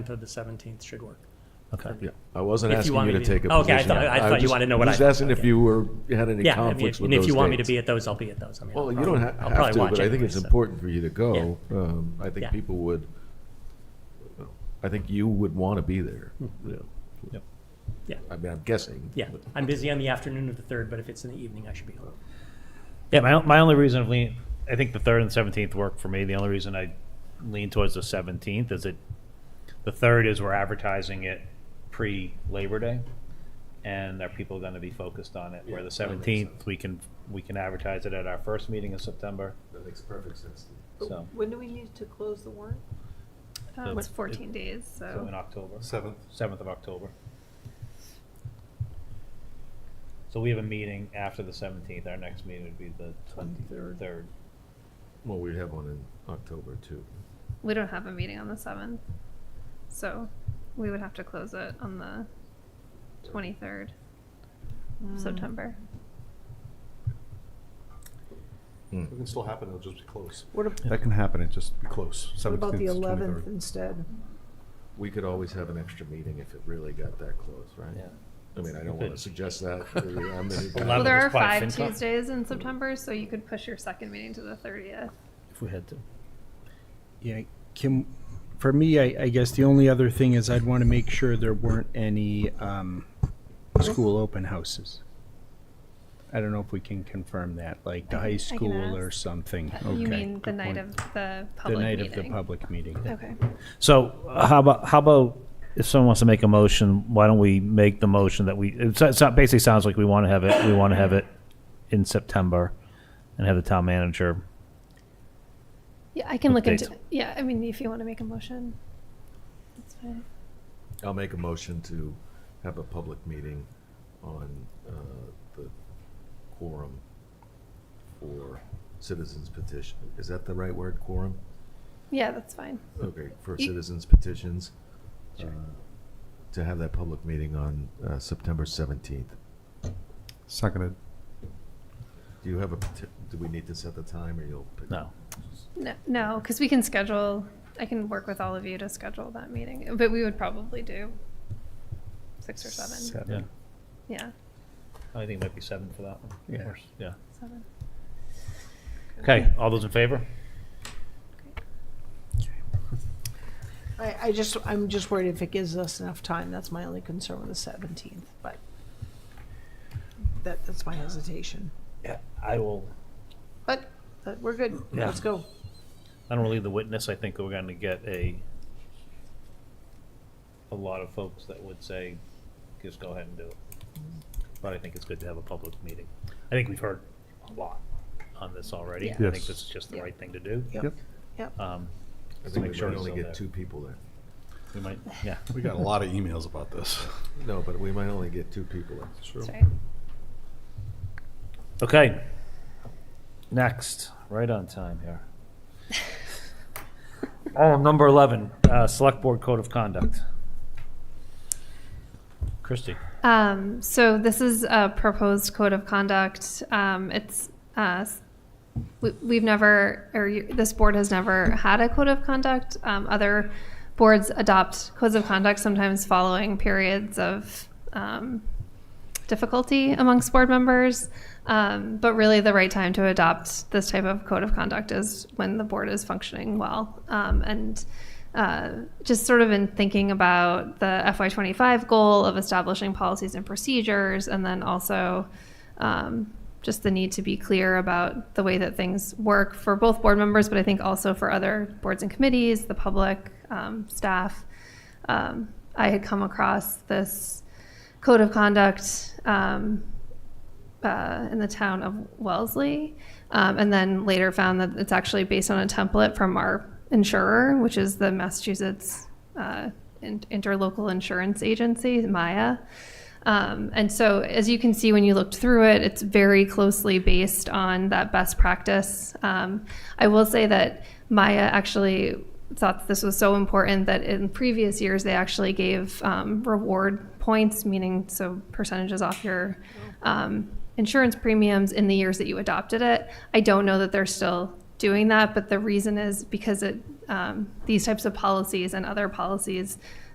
to the seventeenth should work. Okay. Yeah, I wasn't If you asking want you me to to- take a Okay, position. I thought- I was thought you just- wanted to know what Just I- asking if you were, had any Yeah, I mean, conflicts with and those if you want me to dates. be at those, I'll be at those. I mean, Well, I'll you don't probably- ha- I'll have probably to, watch but I think anyway, it's so. important for you to go. Yeah. Um, I think Yeah. people would, I think you would want to be there. Yeah. Yep. Yeah. I mean, I'm guessing. Hmm. Yeah, I'm busy on the afternoon of the third, but if it's in the evening, I should be home. Yeah, my, my only reason of lean, I think the third and seventeenth work for me. The only reason I lean towards the seventeenth is it, the third is we're advertising it pre Labor Day, and are people going to be focused on it? Where the seventeenth we can we can advertise it at our first meeting in September. That makes perfect sense. So, When do we need to close the warrant? So Um, it's it- 14 days, so in so. October, Seventh. seventh of October. So we have a meeting after the seventeenth. Our next meeting would be the twenty-third. Well, we have one in October too. We don't have a meeting on the 7th. So we would have to close it on the 23rd Hmm. of September. It can still happen, it'll just be close. What, ab- That can happen, it just be close. what about the 17th, eleventh 23rd. instead? We could always have an extra meeting if it really got that close, right? Yeah. I mean, I don't want to suggest that. really. I'm in- Well, Well, Eleven there is are probably five FinCon. Tuesdays in September, so you could push your second meeting to the 30th. if we had to. Yeah, Kim, for me, I, I guess the only other thing is I'd want to make sure there weren't any um, school open houses. I don't know if we can confirm that, like the I can- high I can school or ask. something. You Okay, mean the good night point. of the The public night meeting? of the public meeting. Okay. So uh, how about, how about if someone wants to make a motion, why don't we make the motion that we, it so- so- basically sounds like we want to have it, we want to have it in September and have the town manager. Yeah, I can look Update. into, yeah, I mean, if you want to make a motion, that's fine. I'll make a motion to have a public meeting on uh, the quorum for citizens petition. Is that the right word, quorum? Yeah, that's fine. Okay, for You- citizens petitions. uh, To have that public meeting on uh, September 17th. Seconded. Do you have a, peti- do we need to set the time or you'll? pick- No. No, no, because we can schedule, I can work with all of you to schedule that meeting, but we would probably do six or seven. Seven. Yeah, I think it might be seven for that one. Yeah. Or s- Yeah. seven. Okay, all those in favor? I, I just, I'm just worried if it gives us enough time, that's my only concern with the seventeenth, but that, that's my hesitation. Yeah, I will. But, but we're good, Yeah. let's go. I don't believe the witness, I think we're going to get a, a lot of folks that would say, just go ahead and do it. But I think it's good to have a public meeting. I think we've heard a lot on this already. I Yeah. think Yes. this is just the Yeah. right thing to do. Yep. Um, I think Make we sure might it's only still get there. two people there. We might, yeah. We got a lot of emails about this. No, but we might only get two people there. That's right. Okay. Next, right on time here. Oh, number 11, uh, Select Board Code of Conduct. Christie. Um, so this is a proposed code of conduct. Um, it's, uh, s- we, we've never, or you- this board has never had a code of conduct. Um, other boards adopt codes of conduct sometimes following periods of, um, difficulty amongst board members. Um, but really, the right time to adopt this type of code of conduct is when the board is functioning well. Um, and uh, just sort of in thinking about the FY25 goal of establishing policies and procedures, and then also um, just the need to be clear about the way that things work for both board members, but I think also for other boards and committees, the public, um, staff. Um, I had come across this code of conduct um, uh, in the town of Wellesley, um, and then later found that it's actually based on a template from our insurer, which is the Massachusetts uh, in- Interlocal Insurance Agency, Maya. Um, and so, as you can see when you looked through it, it's very closely based on that best practice. Um, I will say that Maya actually thought that this was so important that in previous years they actually gave um, reward points, meaning so percentages off your um, insurance premiums in the years that you adopted it. I don't know that they're still doing that, but the reason is because it um, um, these types of policies and other policies